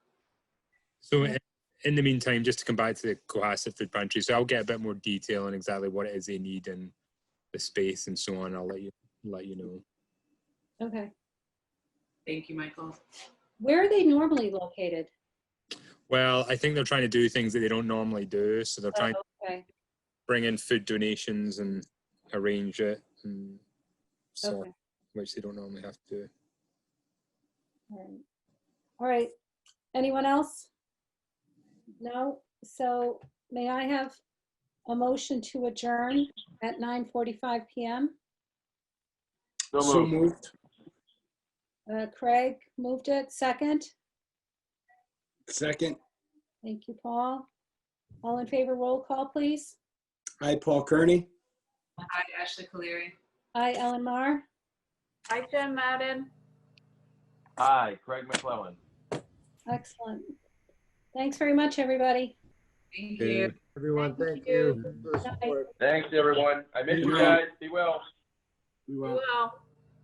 So in- in the meantime, just to come back to the Cohasset Food Pantry, so I'll get a bit more detail on exactly what it is they need and the space and so on. I'll let you let you know. Okay. Thank you, Michael. Where are they normally located? Well, I think they're trying to do things that they don't normally do, so they're trying to Oh, Okay, bring in food donations and arrange it, and so on, okay. which they don't normally have to. do. All right. All right. Anyone else? No? So may I have a motion to adjourn at 9:45 PM? So moved. Uh, Craig moved it. Second? Second. Thank you, Paul. All in favor, roll call, please. Hi, Paul Kearney. Hi, Ashley Caleri. Aye, Ellen Mar. Hi, Jen Madden. Hi, Craig McClellan. Excellent. Thanks very much, everybody. Thank Yeah. you. Everyone, Thank thank you. you for the support. Thanks, everyone. I miss you Yeah. guys. Be well. We Be will. well.